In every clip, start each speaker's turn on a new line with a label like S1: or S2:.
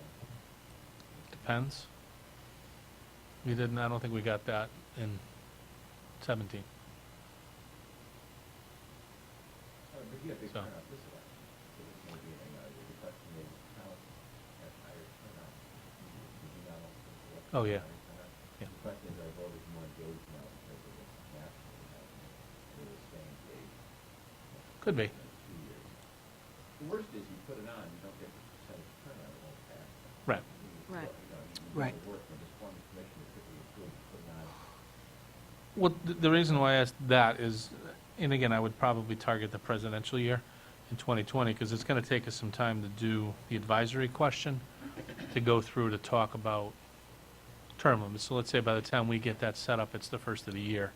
S1: uh,
S2: pens? We didn't, I don't think we got that in seventeen. So. Oh, yeah. Yeah.
S1: The question is, are voters more engaged now because of what's national happening? They were staying engaged
S2: Could be.
S1: in two years. The worst is you put it on, you don't get the percentage turnout, it won't pass.
S2: Right.
S1: You-
S3: Right.
S1: you know, you- you
S4: Right.
S1: do the work when this forming commission is typically approved, put it on.
S2: Well, th- the reason why I asked that is, uh, and again, I would probably target the presidential year in 2020, because it's going to take us some time to do the advisory question, to go through to talk about term limits. So let's say by the time we get that set up, it's the first of the year.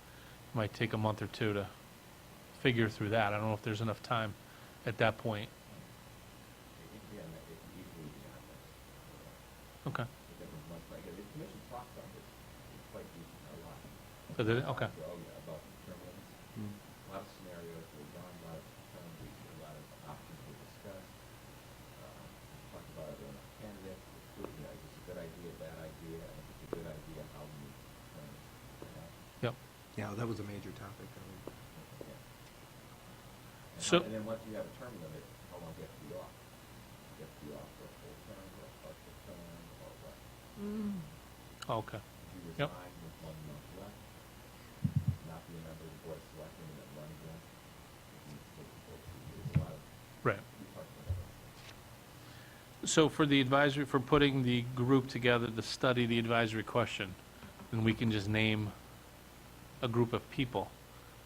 S2: It Might take a month or two to figure through that. I don't know if there's enough time at that point.
S1: It- it- Yeah, and it- it easily beyond that.
S2: Okay.
S1: It doesn't much like, it. the commission talked about this, it's quite decent, a lot.
S2: So did it? Okay.
S1: Oh, yeah, about term limits. a lot of scenarios were done, a lot of penalties, a lot of options were discussed. Uh, Talked about it on a candidate, you know, is this a good idea, bad idea, and if it's a good idea, how do you, um,
S2: Yep.
S4: Yeah, that was a major topic. I mean,
S1: yeah. And
S2: So-
S1: how- And then once you have a term limit, how long do you have to be off? Do you have to be off for a full term, or a partial term, or what?
S3: Mm.
S2: Okay.
S1: If you
S2: Yep.
S1: resign with one month left, not be a member of the board of selectmen, and then run again, if you take the full two years, a lot of,
S2: Right.
S1: we talked about that.
S2: So for the advisory, for putting the group together to study the advisory question, then we can just name a group of people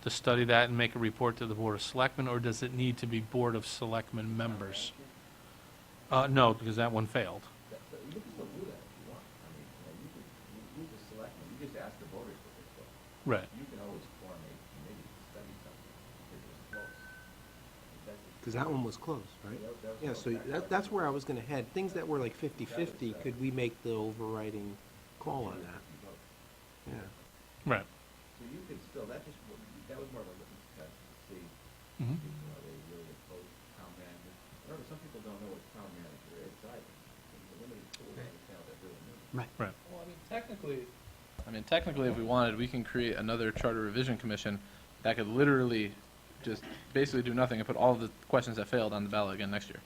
S2: to study that and make a report to the Board of Selectmen, or does it need to be Board of Selectmen members? Uh, no, because that one failed.
S1: That- that- You can still do that if you want. I mean, you know, you could, you, you just select, them. you just ask the voters what they feel.
S2: Right.
S1: You can always form a committee to study something if it's close. If that's the-
S4: Cause that one was closed, right?
S1: That- that was
S4: Yeah,
S1: close.
S4: so that, that's where I was gonna head. Things that were like fifty-fifty, could we make the overriding call on that?
S1: you vote.
S4: Yeah.
S2: Right.
S1: So you could still, that just, wa- that was more of a litmus test to see,
S2: Mhm.
S1: if, you know, they really oppose town manager. Remember, some people don't know what town manager is either. It's a limited tool to tell they're doing it.
S4: Right.
S2: Right.
S5: Well, I mean, technically, I mean, technically, if we wanted, we can create another charter revision commission that could literally just basically do nothing and put all the questions that failed on the ballot again next year.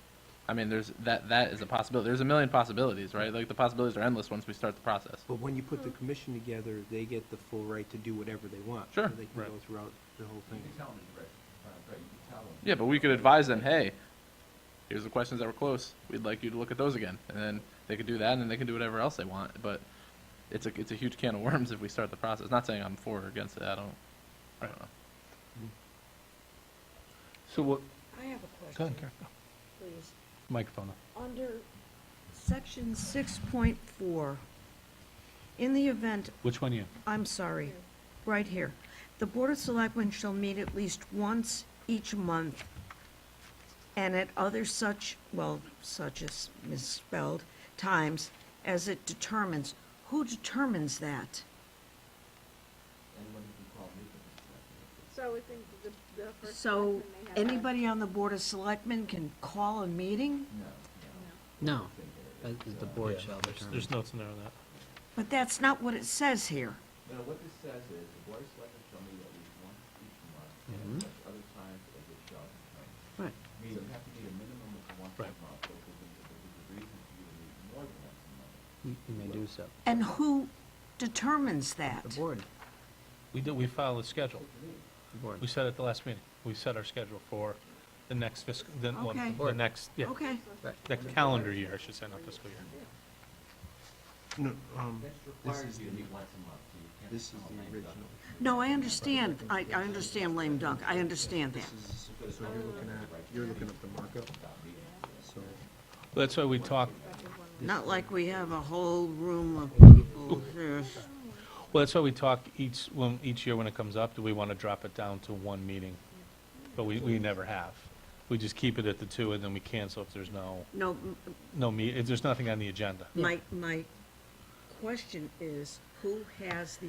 S5: I mean, there's, that, that is a possibility. There's a million possibilities, right? Like, the possibilities are endless once we start the process.
S4: But when you put the commission together, they get the full right to do whatever they want.
S5: Sure.
S4: So They can
S2: Right.
S4: go throughout the whole
S1: You
S4: thing.
S1: can tell them it's rigged, uh, but you can tell them.
S5: Yeah, but we could advise them, hey, here's the questions that were close. We'd like you to look at those again. And then they could do that, and then they can do whatever else they want. But it's a, it's a huge can of worms if we start the process. Not saying I'm for or against it. I don't, I don't know.
S2: So what,
S3: I have a
S2: go ahead,
S3: question,
S2: Karen.
S3: please.
S2: Microphone.
S3: Under section six point four, in the event,
S2: Which one you?
S3: I'm sorry, right here, the Board of Selectmen shall meet at least once each month and at other such, well, such as misspelled, times as it determines. Who determines that?
S1: Anyone who can call me, can select them.
S6: So I think the, the first.
S3: So
S6: selectman may have that.
S3: anybody on the Board of Selectmen can call a meeting?
S1: No, no.
S7: No, uh, the board shall determine.
S2: There's notes in there on that.
S3: But that's not what it says here.
S1: No, what this says is, the board of selectmen shall meet at least once each month,
S7: Mm-hmm.
S1: and at such other times as it shall determine.
S3: Right.
S1: Meaning you have to meet a minimum of once a
S2: Right.
S1: month, but if there's a- if there's a reason for you to meet more than once a month.
S7: You you may do so.
S3: And who determines that?
S7: The board,
S2: We did, we filed a schedule.
S7: the board.
S2: We set it at the last meeting. We set our schedule for the next fiscal, the, well,
S3: Okay.
S2: the next, yeah,
S3: Okay,
S7: Right.
S2: the calendar year, I should say, not fiscal year.
S4: No, um,
S1: This
S4: this
S1: requires
S4: is
S1: you
S4: the,
S1: to meet once a month, so you can't.
S4: this is
S1: call
S4: the
S1: lame duck.
S4: original.
S3: no, I understand, I, I understand lame dunk, I understand
S4: This
S3: that.
S4: is, so you're looking at, you're looking at the markup, so.
S2: That's why we talked,
S4: this
S3: Not
S4: is-
S3: like we have a whole room of people here.
S2: Well, that's why we talk each, when, each year when it comes up, do we want to drop it down to one meeting? But we, we never have. We just keep it at the two, and then we cancel if there's no,
S3: No, m-
S2: no meet, if there's nothing on the agenda.
S3: my, my question is, who has the